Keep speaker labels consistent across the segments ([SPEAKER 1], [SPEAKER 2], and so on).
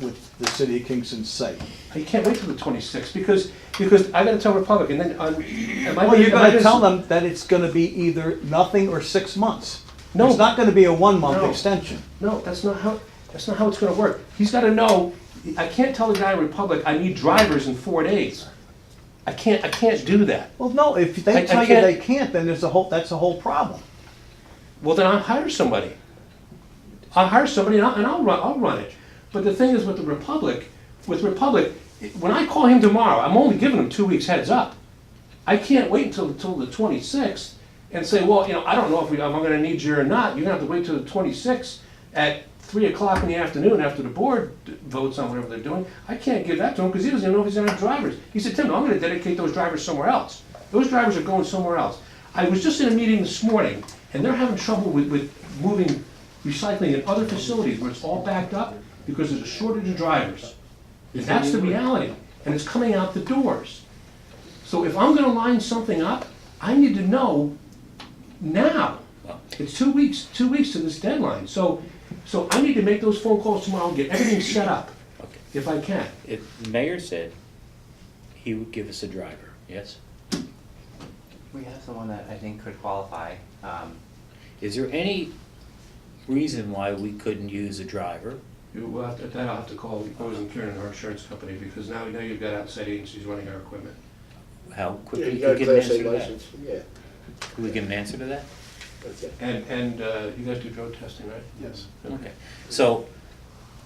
[SPEAKER 1] with the city of Kingston site.
[SPEAKER 2] I can't wait till the twenty-sixth, because, because I gotta tell Republic, and then on, am I?
[SPEAKER 1] Well, you're
[SPEAKER 2] am I
[SPEAKER 1] gonna tell
[SPEAKER 2] s-
[SPEAKER 1] them that it's gonna be either nothing or six months.
[SPEAKER 2] No.
[SPEAKER 1] It's not gonna be a one-month
[SPEAKER 2] No.
[SPEAKER 1] extension.
[SPEAKER 2] No, that's not how, that's not how it's gonna work. He's gotta know, I can't tell the guy in Republic, I need drivers in four days. I can't, I can't do that.
[SPEAKER 1] Well, no, if
[SPEAKER 2] I-
[SPEAKER 1] they
[SPEAKER 2] I
[SPEAKER 1] tell you
[SPEAKER 2] can't-
[SPEAKER 1] they can't, then there's a whole, that's a whole problem.
[SPEAKER 2] Well, then I'll hire somebody. I'll hire somebody and I'll, and I'll run, I'll run it. But the thing is with the Republic, with Republic, when I call him tomorrow, I'm only giving him two weeks heads up. I can't wait until, until the twenty-sixth and say, well, you know, I don't know if we, if I'm gonna need you or not. You're gonna have to wait till the twenty-sixth at three o'clock in the afternoon after the board votes on whatever they're doing. I can't give that to him because he doesn't even know if he's gonna have drivers. He said, Tim, I'm gonna dedicate those drivers somewhere else. Those drivers are going somewhere else. I was just in a meeting this morning and they're having trouble with, with moving recycling in other facilities where it's all backed up because there's a shortage of drivers. And that's the reality. And it's coming out the doors. So if I'm gonna line something up, I need to know now. It's two weeks, two weeks to this deadline, so, so I need to make those phone calls tomorrow and get everything set up,
[SPEAKER 3] Okay.
[SPEAKER 2] if I can.
[SPEAKER 3] If the mayor said he would give us a driver, yes?
[SPEAKER 4] We have someone that I think could qualify. Um,
[SPEAKER 3] Is there any reason why we couldn't use a driver?
[SPEAKER 2] You will have to, that I'll have to call Rose and Kieran, our insurance company, because now, now you've got outside agencies running our equipment.
[SPEAKER 3] How
[SPEAKER 5] Yeah,
[SPEAKER 3] quickly
[SPEAKER 5] you
[SPEAKER 3] we
[SPEAKER 5] got a
[SPEAKER 3] give an
[SPEAKER 5] Class
[SPEAKER 3] answer
[SPEAKER 5] A
[SPEAKER 3] to that?
[SPEAKER 5] license, yeah,
[SPEAKER 3] Can we give an answer to that?
[SPEAKER 5] that's it.
[SPEAKER 2] And, and, uh, you guys do drug testing, right?
[SPEAKER 1] Yes.
[SPEAKER 3] Okay, so,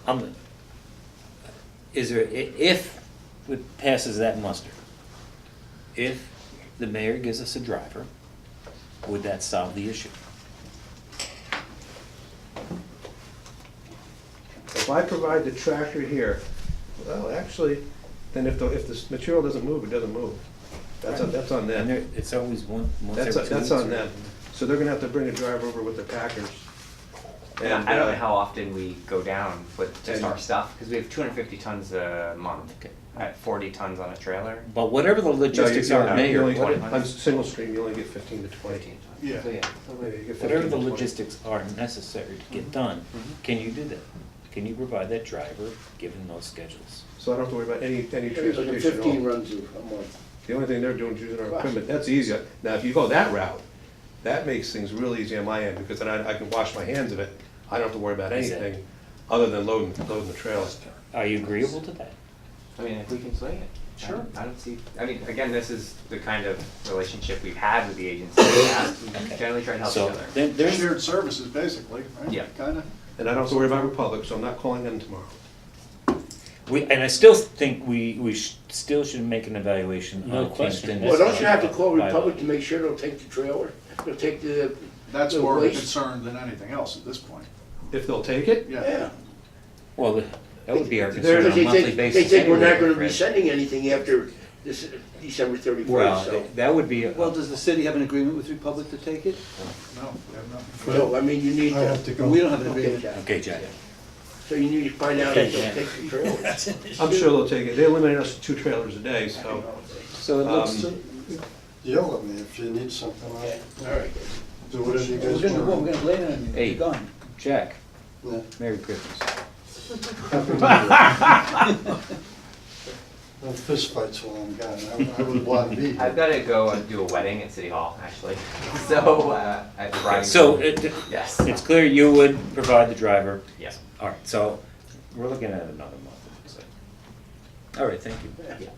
[SPEAKER 3] um, is there, i- if it passes that muster, if the mayor gives us a driver, would that solve the issue?
[SPEAKER 2] If I provide the tractor here, well, actually, then if the, if this material doesn't move, it doesn't move. That's, on- that's on them.
[SPEAKER 3] And there, it's always one, once every
[SPEAKER 2] That's,
[SPEAKER 3] two
[SPEAKER 2] that's
[SPEAKER 3] weeks
[SPEAKER 2] on
[SPEAKER 3] or-
[SPEAKER 2] them. So they're gonna have to bring a driver over with the Packers.
[SPEAKER 4] and I I
[SPEAKER 2] uh,
[SPEAKER 4] don't know how often we go down with just
[SPEAKER 2] and-
[SPEAKER 4] our stuff because we have 250 tons a month
[SPEAKER 3] Okay.
[SPEAKER 4] at 40 tons on a trailer.
[SPEAKER 3] But whatever the
[SPEAKER 2] No, you-
[SPEAKER 3] logistics
[SPEAKER 2] you're
[SPEAKER 3] are,
[SPEAKER 2] not. You
[SPEAKER 3] mayor,
[SPEAKER 2] only-
[SPEAKER 3] what-
[SPEAKER 2] On single stream, you only get fifteen to twenty.
[SPEAKER 4] 15 tons.
[SPEAKER 1] Yeah.
[SPEAKER 4] So, yeah. so
[SPEAKER 2] Yeah, you
[SPEAKER 4] we-
[SPEAKER 2] get 15
[SPEAKER 3] whatever
[SPEAKER 2] to
[SPEAKER 3] the
[SPEAKER 2] 20.
[SPEAKER 3] logistics are necessary to get done,
[SPEAKER 5] Mm-hmm.
[SPEAKER 3] can you do that? Can you provide that driver, given those schedules?
[SPEAKER 2] So I don't have to worry about any, any
[SPEAKER 5] It's like a
[SPEAKER 2] transportation
[SPEAKER 5] fifteen
[SPEAKER 2] at all.
[SPEAKER 5] runs a a month.
[SPEAKER 2] The only thing they're doing is using our equipment. That's easy. Now, if you go that route, that makes things real easy on my end, because then I, I can wash my hands of it. I don't have to worry about
[SPEAKER 3] Exactly.
[SPEAKER 2] anything, other than loading, loading the trailers.
[SPEAKER 3] Are you agreeable to that?
[SPEAKER 4] I mean, if we can swing it. I
[SPEAKER 3] Sure.
[SPEAKER 4] don't- I don't see, I mean, again, this is the kind of relationship we've had with the agency. in the past. We generally try to help
[SPEAKER 3] So,
[SPEAKER 4] each other.
[SPEAKER 3] then, there's,
[SPEAKER 6] Shared services, basically, right?
[SPEAKER 4] Yeah.
[SPEAKER 6] Kinda.
[SPEAKER 2] And I don't have to worry about Republic, so I'm not calling them tomorrow.
[SPEAKER 3] we, and I still think we, we sh- still should make an evaluation
[SPEAKER 7] No
[SPEAKER 3] on
[SPEAKER 7] question.
[SPEAKER 3] Kingston.
[SPEAKER 5] Well,
[SPEAKER 3] as
[SPEAKER 5] don't you
[SPEAKER 3] our
[SPEAKER 5] have to call
[SPEAKER 3] bylaw.
[SPEAKER 5] Republic to make sure they'll take the trailer, they'll take the.
[SPEAKER 6] That's
[SPEAKER 5] the
[SPEAKER 6] more of a
[SPEAKER 5] waste?
[SPEAKER 6] concern than anything else at this point.
[SPEAKER 2] If they'll take it,
[SPEAKER 6] Yeah.
[SPEAKER 5] Yeah.
[SPEAKER 3] Well, th- that would be our concern
[SPEAKER 5] Because
[SPEAKER 3] on a
[SPEAKER 5] they
[SPEAKER 3] monthly
[SPEAKER 5] think, they
[SPEAKER 3] basis
[SPEAKER 5] think we're not
[SPEAKER 3] anyway,
[SPEAKER 5] gonna be
[SPEAKER 3] Chris.
[SPEAKER 5] sending anything after this, December
[SPEAKER 3] Well,
[SPEAKER 5] thirty-first, so.
[SPEAKER 3] th- that would be, a-
[SPEAKER 8] Well, does the city have an agreement with Republic to take it?
[SPEAKER 6] No, we have nothing.
[SPEAKER 5] No, I mean, you need to.
[SPEAKER 8] We don't have an
[SPEAKER 5] Okay,
[SPEAKER 8] agreement.
[SPEAKER 5] Jack.
[SPEAKER 3] okay, Jack,
[SPEAKER 5] So you need to find out if
[SPEAKER 3] Okay,
[SPEAKER 5] they'll take the trailer.
[SPEAKER 2] I'm sure they'll take it. They eliminate us to two trailers a day, so. um,
[SPEAKER 8] So it
[SPEAKER 2] looks-
[SPEAKER 8] looks,
[SPEAKER 2] So-
[SPEAKER 6] Yell at me if you need something,
[SPEAKER 5] All right.
[SPEAKER 6] do whatever you
[SPEAKER 8] we're gonna, we're gonna blame it on you,
[SPEAKER 3] Hey.
[SPEAKER 8] you're gone.
[SPEAKER 3] Jack,
[SPEAKER 6] Yeah.
[SPEAKER 3] Merry Christmas.
[SPEAKER 6] Fist fights while I'm gone, I would want to be
[SPEAKER 4] I've got to go and do a wedding at City Hall, actually. So, uh, at Friday.
[SPEAKER 3] So, it,
[SPEAKER 4] Yes.
[SPEAKER 3] it's clear you would provide the driver.
[SPEAKER 4] Yes.
[SPEAKER 3] All right, so we're looking at another month, it looks like. All right, thank you.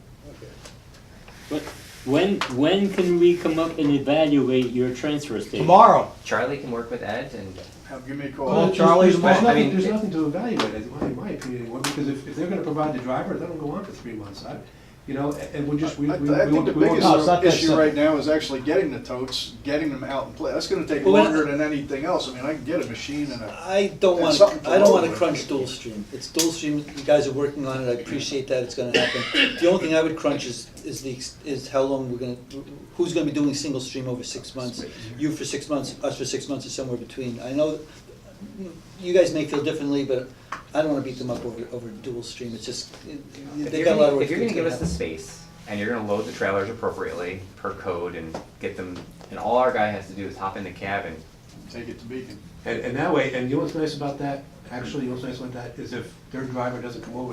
[SPEAKER 7] but when, when can we come up and evaluate your transfer station?
[SPEAKER 1] Tomorrow,
[SPEAKER 4] Charlie can work with Ed and
[SPEAKER 6] Have, give me a
[SPEAKER 1] Well,
[SPEAKER 6] call.
[SPEAKER 2] Well,
[SPEAKER 1] Charlie's
[SPEAKER 2] there's, there's
[SPEAKER 4] mom- I
[SPEAKER 2] nothing,
[SPEAKER 4] mean,
[SPEAKER 2] there's
[SPEAKER 4] it-
[SPEAKER 2] nothing to evaluate, in my, in my opinion, anymore, because if, if they're gonna provide the driver, that'll go on for three months, I, you know, and and we'll just, we,
[SPEAKER 6] I
[SPEAKER 2] we, we
[SPEAKER 6] I think the
[SPEAKER 2] won't, we won't.
[SPEAKER 6] biggest
[SPEAKER 1] No, it's not that
[SPEAKER 6] issue
[SPEAKER 1] simple.
[SPEAKER 6] right now is actually getting the totes, getting them out and play. That's gonna take
[SPEAKER 8] Well, that-
[SPEAKER 6] longer than anything else. I mean, I can get a machine and a,
[SPEAKER 8] I don't
[SPEAKER 6] That's
[SPEAKER 8] wanna,
[SPEAKER 6] something to
[SPEAKER 8] I don't
[SPEAKER 6] roll
[SPEAKER 8] wanna
[SPEAKER 6] with.
[SPEAKER 8] crunch dual stream. It's dual stream, you guys are working on it, I appreciate that, it's gonna happen. The only thing I would crunch is, is the, ex- is how long we're gonna, who's gonna be doing single stream over six months? You for six months, us for six months, or somewhere between. I know, you guys may feel differently, but I don't wanna beat them up over, over dual stream, it's just,
[SPEAKER 4] if
[SPEAKER 8] they
[SPEAKER 4] you're
[SPEAKER 8] got a lot
[SPEAKER 4] gonna,
[SPEAKER 8] of work.
[SPEAKER 4] if you're gonna
[SPEAKER 8] that's
[SPEAKER 4] give us the
[SPEAKER 8] happen.
[SPEAKER 4] space and you're gonna load the trailers appropriately per code and get them, and all our guy has to do is hop in the cab and
[SPEAKER 6] take it to Beacon.
[SPEAKER 2] And, and that way, and you know what's nice about that, actually, you know what's nice about that, is if their driver doesn't come over,